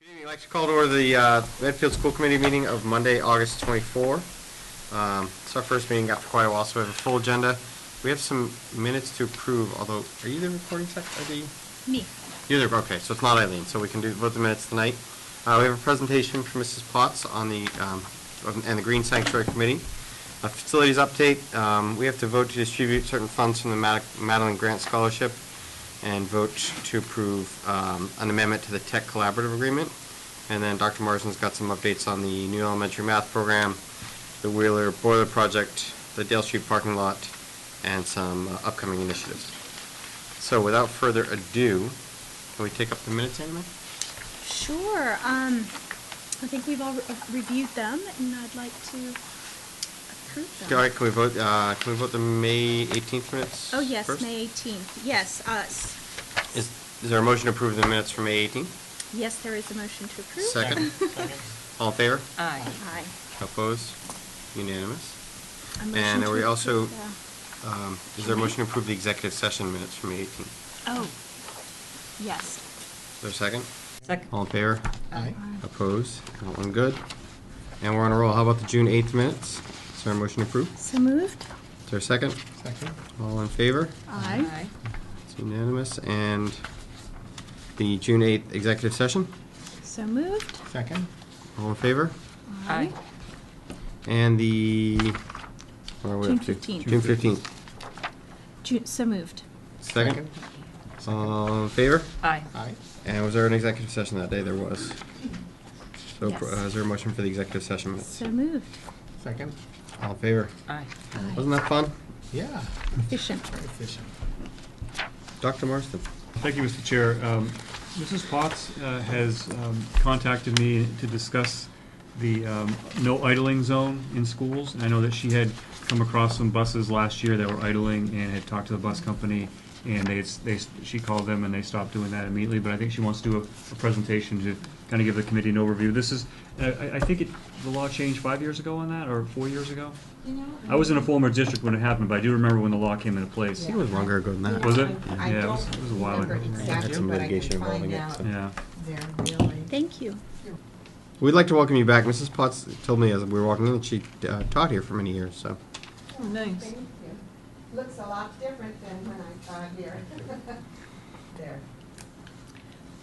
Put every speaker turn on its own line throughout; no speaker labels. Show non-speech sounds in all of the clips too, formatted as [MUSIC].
Good evening. I'd like to call to order the uh, Medfield School Committee meeting of Monday, August 24. Um, It's our first meeting out for quite a while, so we have a full agenda. We have some minutes to approve, although, are you the recording sec, are the,
Me.
you're the, okay, so it's not Eileen, so we can do both the minutes tonight. Uh, We have a presentation from Mrs. Potts on the, um, on- and the Green Sanctuary Committee. A facilities update, um, we have to vote to distribute certain funds from the Mad- Madeline Grant Scholarship and vote to approve um, an amendment to the Tech Collaborative Agreement. And then Dr. Marsden's got some updates on the new elementary math program, the Wheeler Boiler Project, the Dale Street parking lot, and some uh, upcoming initiatives. So without further ado, can we take up the minutes, Amy?
Sure. Um, I think we've all re- reviewed them, and I'd like to approve them.
All right, can we vote, uh, can we vote the May 18th minutes?
Oh, yes,
first?
May 18th. Yes, uh, us.
Is is there a motion to approve the minutes for May 18th?
Yes, there is a motion to approve. [LAUGHS]
Second? All in favor?
Aye.
Aye.
Opposed? Unanimous?
A motion
And are
to
we also-
approve
Um, Is there a motion to approve the executive session minutes from May 18th?
the- Oh, yes.
Is there a second?
Second.
All in favor?
Aye.
Opposed? That one good. And we're on a roll. How about the June 8th minutes? Is there a motion to approve?
So moved?
Is there a second?
Second.
All in favor?
Aye.
It's unanimous. And the June 8th executive session?
So moved?
Second.
All in favor?
Aye.
And the, where are we
June
up to?
15th.
June 15th.
Ju- So moved.
Second? All in favor?
Aye.
Aye.
And was there an executive session that day? There was. So
Yes.
uh, is there a motion for the executive session minutes?
So moved.
Second.
All in favor?
Aye.
Wasn't that fun?
Yeah.
Efficient.
Very efficient.
Dr. Marston?
Thank you, Mr. Chair. Um, Mrs. Potts uh, has um, contacted me to discuss the um, no idling zone in schools. And I know that she had come across some buses last year that were idling and had talked to the bus company, and they, they, she called them and they stopped doing that immediately. But I think she wants to do a- a presentation to kind of give the committee an overview. This is, I- I I think it- the law changed five years ago on that, or four years ago? I was in a former district when it happened, but I do remember when the law came into place.
It was longer ago than that.
Was it?
I
Yeah, it
don't
was- it was a while
remember
ago.
Had
exactly,
some
but I
litigation
can
involving
find
it,
out.
so.
Yeah.
They're really.
Thank you.
We'd like to welcome you back. Mrs. Potts told me as we were walking in that she uh, taught here for many years, so.
Nice.
Thank you. Looks a lot different than when I got here. [LAUGHS] There.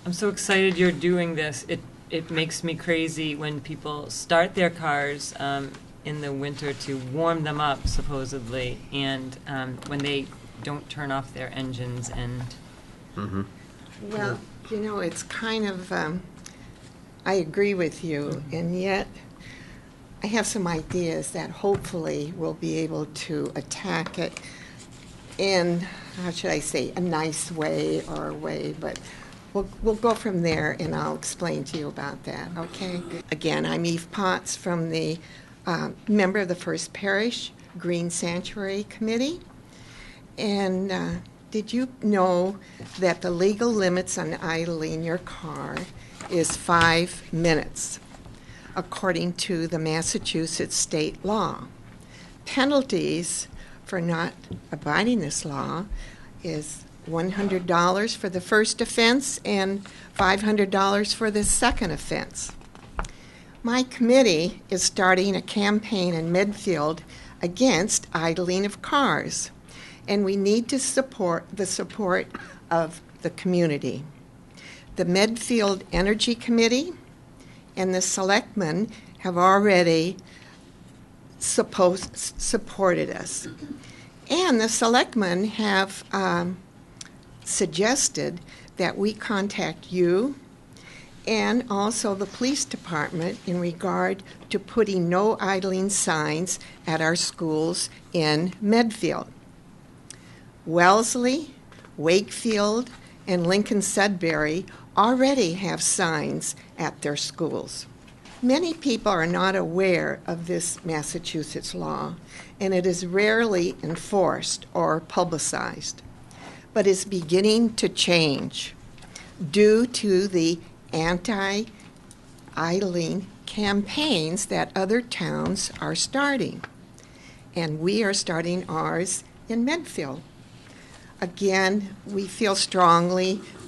I'm so excited you're doing this. It, it makes me crazy when people start their cars um, in the winter to warm them up supposedly, and um, when they don't turn off their engines and,
mhm.
Well, you know, it's kind of, um, I agree with you, and yet I have some ideas that hopefully we'll be able to attack it in, how should I say, a nice way or a way, but we'll, we'll go from there and I'll explain to you about that, okay? Again, I'm Eve Potts from the, uh, member of the First Parish Green Sanctuary Committee. And uh, did you know that the legal limits on idling your car is five minutes, according to the Massachusetts state law? Penalties for not abiding this law is $100 for the first offense and $500 for the second offense. My committee is starting a campaign in Medfield against idling of cars, and we need to support the support of the community. The Medfield Energy Committee and the Selectmen have already supposed, supported us. And the Selectmen have um, suggested that we contact you and also the police department in regard to putting no idling signs at our schools in Medfield. Wellesley, Wakefield, and Lincoln Sudbury already have signs at their schools. Many people are not aware of this Massachusetts law, and it is rarely enforced or publicized, but is beginning to change due to the anti idling campaigns that other towns are starting. And we are starting ours in Medfield. Again, we feel strongly